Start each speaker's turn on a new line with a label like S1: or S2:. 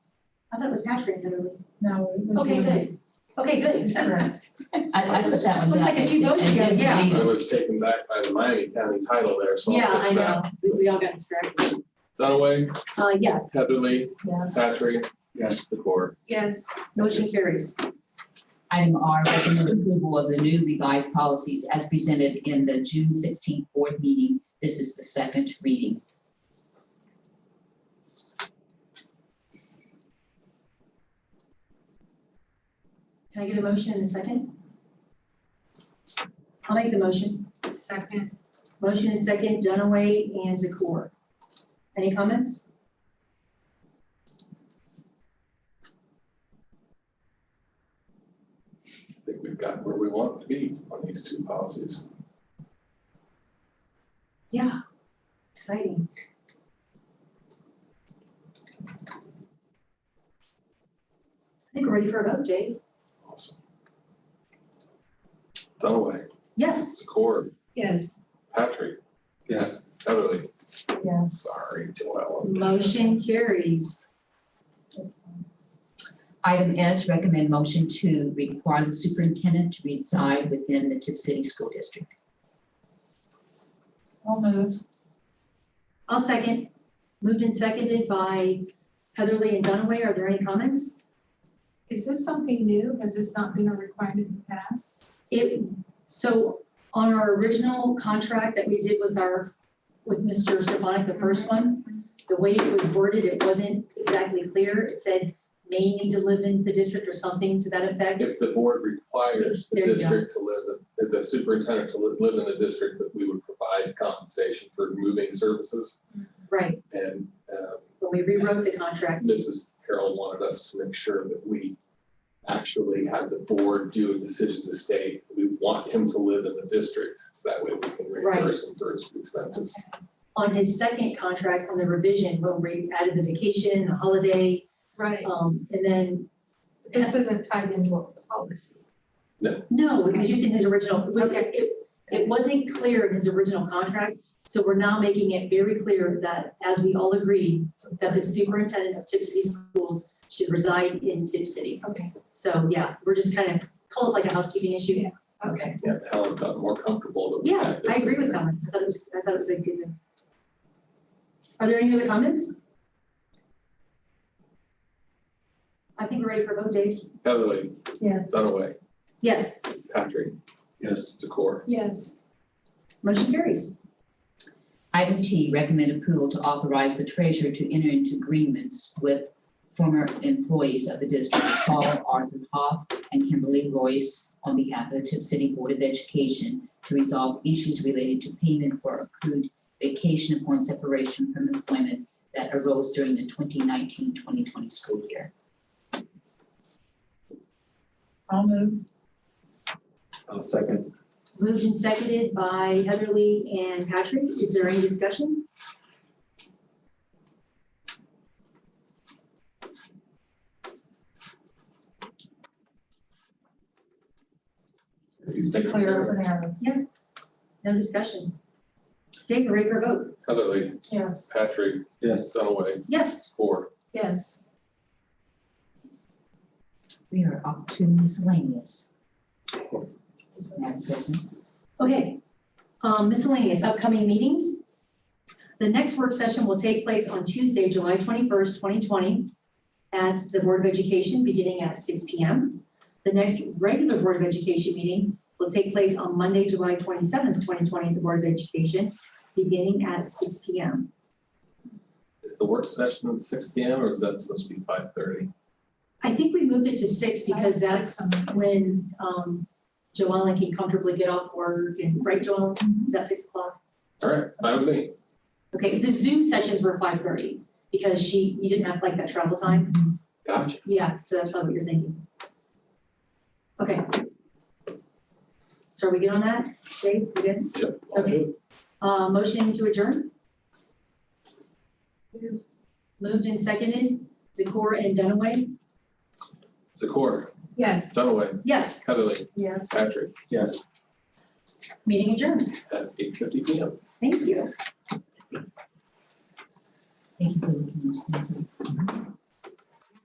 S1: I thought it was tax rate literally.
S2: No. it was
S1: Okay,
S2: really-
S1: good. Okay, good.
S2: Correct.
S3: I, I put that one
S1: Looks
S3: down.
S1: like a few
S3: and-
S1: notes
S3: and
S1: here,
S3: didn't
S1: yeah.
S3: leave
S4: I
S3: it.
S4: was taken back by the Miami County title there, so.
S1: Yeah,
S4: it's
S1: I know.
S4: that.
S1: We, we all got distracted.
S4: Dunaway,
S1: Uh, yes,
S4: Heatherly,
S2: Yes.
S4: Patrick, yes, the core.
S1: yes, motion carries.
S3: Item R, recommend approval of the new revised policies as presented in the June sixteenth board meeting. This is the second reading.
S1: Can I get a motion in a second? I'll make the motion.
S5: Second,
S1: Motion and second, Dunaway and Zakor. Any comments?
S4: I think we've got where we want to be on these two policies.
S1: Yeah. Exciting. I think we're ready for a vote, Jay.
S4: Awesome. Dunaway,
S1: Yes.
S4: the core,
S5: yes,
S4: Patrick. Yes. Heatherly,
S2: Yes.
S4: sorry, Joelle.
S1: Motion carries.
S3: Item S, recommend motion to require the superintendent to reside within the Tip City School District.
S2: I'll move.
S1: I'll second. Moved and seconded by Heatherly and Dunaway. Are there any comments?
S5: is this something new? Has this not been a requirement in the past?
S1: It, so on our original contract that we did with our, with Mr. Stefanik, the first one, the way it was worded, it wasn't exactly clear. It said may need to live in the district or something to that effect.
S4: If the board requires the
S1: There you go.
S4: district to live, in- the superintendent to live- live in the district, that we would provide compensation for moving services.
S1: Right,
S4: And um,
S1: when we rewrote the contract.
S4: Mrs. Carroll wanted us to make sure that we actually had the board do a decision to say, we want him to live in the district. So that way we can reimburse him for his expenses.
S1: On his second contract, on the revision, when we added the vacation, the holiday,
S5: Right.
S1: um, and then,
S5: This isn't tied into a policy.
S1: no, it was just in his original. we-
S5: Okay.
S1: It, it wasn't clear in his original contract, so we're now making it very clear that, as we all agree, that the superintendent of Tip City Schools should reside in Tip City.
S5: Okay.
S1: So, yeah, we're just kind of, call it like a housekeeping issue. Okay.
S4: Yeah, Helen got more comfortable that we
S1: Yeah,
S4: had
S1: I
S4: this.
S1: agree with that. I thought it was, I thought it was a good. Are there any other comments? I think we're ready for vote, Dave.
S4: Heatherly,
S2: Yes.
S4: Dunaway,
S1: Yes,
S4: Patrick. Yes. Secor.
S5: Yes,
S1: motion carries.
S3: Item T, recommend approval to authorize the treasurer to enter into agreements with former employees of the district, Paul Arthur Hoff and Kimberly Royce, on behalf of the Tip City Board of Education to resolve issues related to payment for accrued vacation upon separation from employment that arose during the 2019-2020 school year.
S2: I'll move.
S6: I'll second.
S1: Moved and seconded by Heatherly and Patrick. Is there any discussion?
S2: It's clear open air.
S1: No discussion. Dave, we're ready for vote.
S4: Heatherly,
S2: Yes.
S4: Patrick,
S6: Yes,
S4: Dunaway,
S1: Yes,
S4: Secor.
S5: yes.
S3: We are up to miscellaneous. Madam President.
S1: Okay, Um, miscellaneous upcoming meetings. The next work session will take place on Tuesday, July 21st, 2020, at the Board of Education, beginning at 6 PM. The next regular Board of Education meeting will take place on Monday, July 27th, 2020, at the Board of Education, beginning at 6 PM.
S4: Is the work session at six P M or is that supposed to be five thirty?
S1: I think we moved it to 6 because
S5: Five,
S1: that's
S5: six, um,
S1: when um, Joellen can comfortably get off work and, right, Joellen? Is that 6 o'clock?
S4: All right, fine with me.
S1: Okay, so the Zoom sessions were five thirty, because she, you didn't have like that travel time.
S4: Gotcha.
S1: Yeah, so that's probably what you're thinking. Okay. So are we good on that? Dave, you good?
S4: Yep.
S1: Okay. Uh, motion to adjourn?
S5: Moved.
S1: Moved and seconded, Zakor and Dunaway?
S4: Secor,
S5: Yes.
S4: Dunaway,
S1: Yes,
S4: Heatherly,
S2: Yes.
S4: Patrick,
S6: yes.
S1: meeting adjourned.
S4: at eight fifty P M.
S1: Thank you.
S3: Thank you for looking into these.